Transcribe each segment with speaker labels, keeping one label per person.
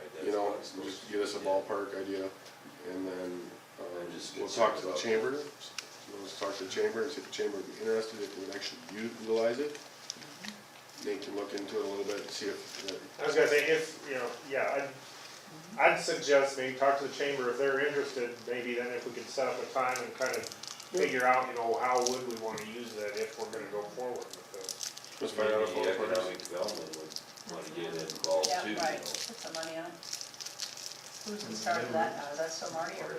Speaker 1: guys, and just get us a ballpark idea, and then, um,
Speaker 2: And just
Speaker 1: we'll
Speaker 2: get
Speaker 1: talk to
Speaker 2: something
Speaker 1: the
Speaker 2: up.
Speaker 1: chamber. We'll just talk to the chamber and see if the chamber would be interested, if they would actually utilize it. Nate can look into it a little bit and see if, uh,
Speaker 3: I was gonna say, if, you know, yeah, I'd, I'd suggest maybe talk to the chamber if they're interested, maybe then if we could set up a time and kind of figure out, you know, how would we wanna use that if we're gonna go forward with this.
Speaker 1: let's find out if all
Speaker 2: Community
Speaker 1: the partners.
Speaker 2: economic development would wanna get involved
Speaker 4: Yeah,
Speaker 2: too, you know.
Speaker 4: right, put some money on it. Who's in charge of that now, is that still Marty or?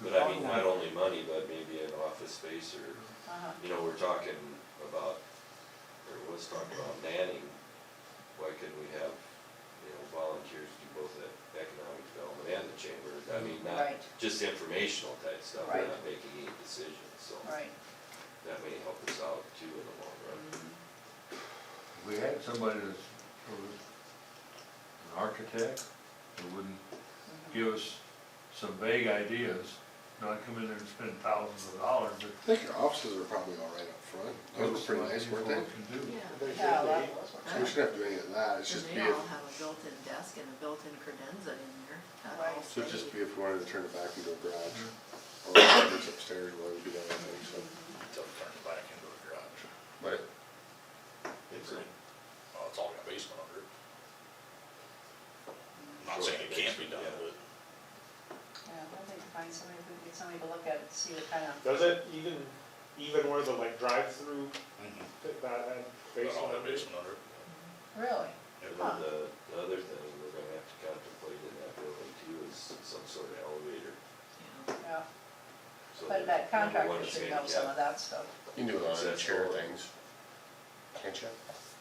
Speaker 2: But I mean, not only money, but maybe an office space or,
Speaker 4: uh-huh.
Speaker 2: you know, we're talking about, or was talking about Manning. Why couldn't we have, you know, volunteers do both the economic development and the chamber? I mean, not
Speaker 4: Right.
Speaker 2: just informational type stuff, we're
Speaker 4: Right.
Speaker 2: not making any decisions, so
Speaker 4: Right.
Speaker 2: that may help us out too in the long run.
Speaker 5: We had somebody that's, who was an architect, who wouldn't give us some vague ideas, not come in there and spend thousands of dollars,
Speaker 1: I think your offices are probably all right up front,
Speaker 5: but.
Speaker 1: those were pretty nice, weren't they?
Speaker 5: Can do.
Speaker 4: Yeah, that was
Speaker 1: So
Speaker 4: one.
Speaker 1: we shouldn't have to do any of that, it's
Speaker 6: And
Speaker 1: just be,
Speaker 6: they all
Speaker 1: if-
Speaker 6: have a built-in desk and a built-in credenza in there. That
Speaker 4: Right.
Speaker 6: all
Speaker 1: so it'd
Speaker 6: stays.
Speaker 1: just be if we wanted to turn it back into a garage, or if it's upstairs, why would we do that, I think, so.
Speaker 7: Until we turn it back into a garage.
Speaker 1: But
Speaker 7: It's, in- well, it's all got a basement under it. I'm Not saying it can't be done, but
Speaker 4: Yeah, I think find somebody, if we can get somebody to look at it, see what kind of,
Speaker 3: Does it even, even where the like drive-through,
Speaker 7: got
Speaker 3: that, that basement?
Speaker 7: all that basement under it.
Speaker 4: really?
Speaker 2: And
Speaker 4: Huh.
Speaker 2: then the, the other thing we're gonna have to contemplate in that building too is some sort of elevator.
Speaker 6: Yeah.
Speaker 4: Yeah,
Speaker 2: so
Speaker 4: but
Speaker 2: that
Speaker 4: that
Speaker 2: number
Speaker 4: contractor
Speaker 2: one is
Speaker 4: should know some of
Speaker 2: handicap.
Speaker 4: that stuff.
Speaker 1: you can do a lot of chair things, can't you?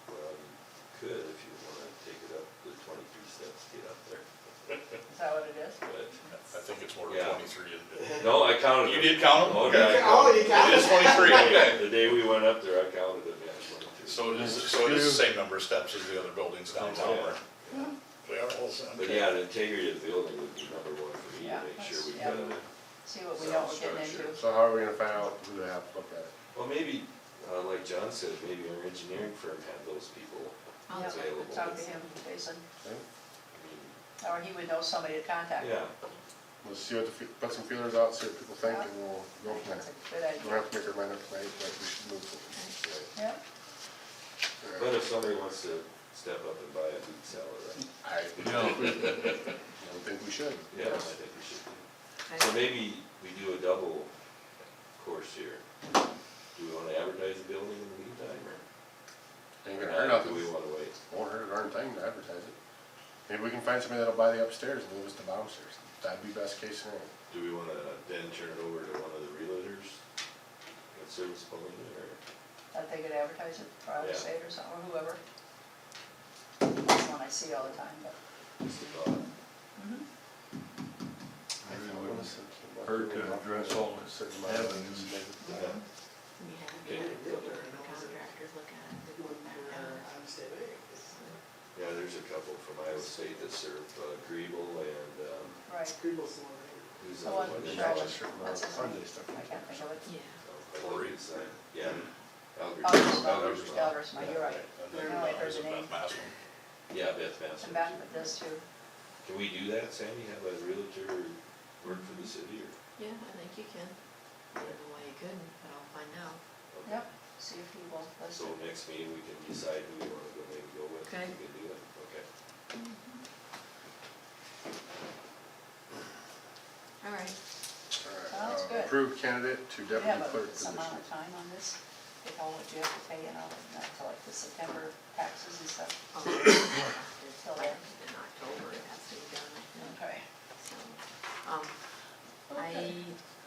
Speaker 2: Well, you um, Could, if you wanna take it up the twenty-three steps, to get up there,
Speaker 4: Is that what it is?
Speaker 2: but,
Speaker 7: I think it's more than
Speaker 2: Yeah.
Speaker 7: twenty-three. isn't it?
Speaker 2: no, I counted.
Speaker 7: You
Speaker 2: them.
Speaker 7: did count
Speaker 2: Oh,
Speaker 7: them?
Speaker 2: yeah, I
Speaker 3: Oh,
Speaker 2: counted
Speaker 3: you got
Speaker 7: It is twenty-three, okay.
Speaker 2: them. The day we went up there, I counted them, yeah, twenty-three.
Speaker 7: So it is, so it is the same number of steps as the other buildings downtown,
Speaker 2: Yeah.
Speaker 7: right? We are, well,
Speaker 2: But yeah, the integrity of the building would be number one for me to
Speaker 4: Yeah,
Speaker 2: make sure
Speaker 4: that's-
Speaker 2: we
Speaker 4: yeah.
Speaker 2: got it.
Speaker 4: See what we know we're getting
Speaker 2: Sound
Speaker 4: into.
Speaker 2: structure.
Speaker 1: So how are we gonna find out who to have look at it?
Speaker 2: Well, maybe, uh, like John said, maybe our engineering firm had those people
Speaker 6: I'll
Speaker 4: Oh, Yeah,
Speaker 6: check
Speaker 2: available.
Speaker 4: Talk to him, Jason,
Speaker 2: I mean,
Speaker 4: or he would know somebody to contact.
Speaker 2: Yeah,
Speaker 1: Let's see what the, fe- put some feelers out, see what people think, and we'll go from
Speaker 4: That's
Speaker 1: there.
Speaker 4: a good
Speaker 1: We don't
Speaker 4: idea,
Speaker 1: have to make our mind up tonight, but we should move forward.
Speaker 2: right.
Speaker 4: yeah.
Speaker 2: But
Speaker 1: Alright.
Speaker 2: if somebody wants to step up and buy a meat salad, I
Speaker 1: I
Speaker 5: No.
Speaker 1: don't think we should.
Speaker 2: yeah, I think we should do.
Speaker 6: I-
Speaker 2: So maybe we do a double course here. Do we wanna advertise the building in the meantime, or?
Speaker 1: Ain't gonna hurt nothing,
Speaker 2: Do we wanna wait?
Speaker 1: won't hurt a darn thing to advertise it. Maybe we can find somebody that'll buy the upstairs and leave us the downstairs, that'd be best case scenario.
Speaker 2: Do we wanna then turn it over to one of the realtors? That serves Pauline, or?
Speaker 4: that they could advertise it for out
Speaker 2: Yeah.
Speaker 4: of state or something, or whoever. That's one I see all the time, but. mm-hmm,
Speaker 2: just a thought.
Speaker 5: Maybe it wouldn't Hurt to address all the avenues.
Speaker 2: Yeah.
Speaker 1: Uh-huh.
Speaker 6: We had to
Speaker 2: Yeah.
Speaker 6: get the contractors look at it, they wouldn't back down.
Speaker 2: Yeah, there's a couple from Iowa State that serve uh, Griebel and, um,
Speaker 4: Right,
Speaker 2: who's the
Speaker 4: The one
Speaker 2: one?
Speaker 4: in
Speaker 2: that-
Speaker 4: Charlotte.
Speaker 1: That's Sunday stuff.
Speaker 4: I can't think of it.
Speaker 6: Yeah.
Speaker 2: Oh, Cory, is that- Yeah.
Speaker 4: Alder's mother,
Speaker 2: Alger's mom.
Speaker 4: Alder's mother, you're right.
Speaker 7: And
Speaker 4: I
Speaker 7: then,
Speaker 4: don't
Speaker 7: uh,
Speaker 4: like her
Speaker 7: is it
Speaker 4: name.
Speaker 7: Beth Mastin?
Speaker 2: Yeah, Beth Master.
Speaker 4: And back with this too.
Speaker 2: Can we do that, Sandy, have a realtor work for the city or?
Speaker 6: Yeah, I think you can. I don't know why you couldn't, but I'll find out.
Speaker 4: Yep, see if he will
Speaker 2: So
Speaker 4: listen.
Speaker 2: next meeting, we can decide who we wanna go, maybe go with, we
Speaker 6: Okay.
Speaker 2: can do it, okay.
Speaker 6: All right.
Speaker 4: Sounds good.
Speaker 1: Approved candidate to
Speaker 4: Do you have
Speaker 1: deputy clerk
Speaker 4: a-
Speaker 1: position.
Speaker 4: some amount of time on this? With all what you have to pay and all, that, not till like the September taxes and stuff?
Speaker 6: I'll- In
Speaker 4: Till then?
Speaker 6: October, it has to be done, I think.
Speaker 4: Okay.
Speaker 6: So, um, I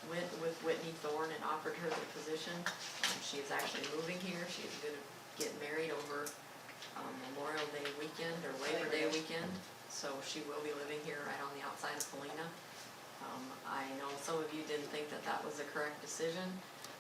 Speaker 6: went with Whitney Thorne and offered her the position. Um, She is actually moving here, she's gonna get married over um, Memorial Day weekend or Labor Day weekend. So she will be living here right on the outside of Polina. Um, I know some of you didn't think that that was the correct decision,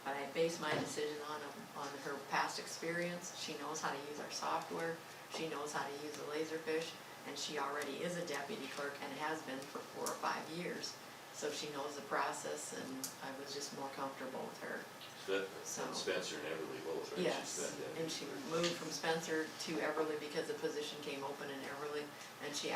Speaker 6: but I based my decision on, on her past experience. She knows how to use our software, she knows how to use the Laserfish, and she already is a deputy clerk and has been for four or five years. So she knows the process and I was just more comfortable with her.
Speaker 2: Beth
Speaker 6: So-
Speaker 2: and Spencer and Everly both, right? She's
Speaker 6: Yes,
Speaker 2: been down
Speaker 6: and
Speaker 2: there.
Speaker 6: she moved from Spencer to Everly because the position came open in Everly, and she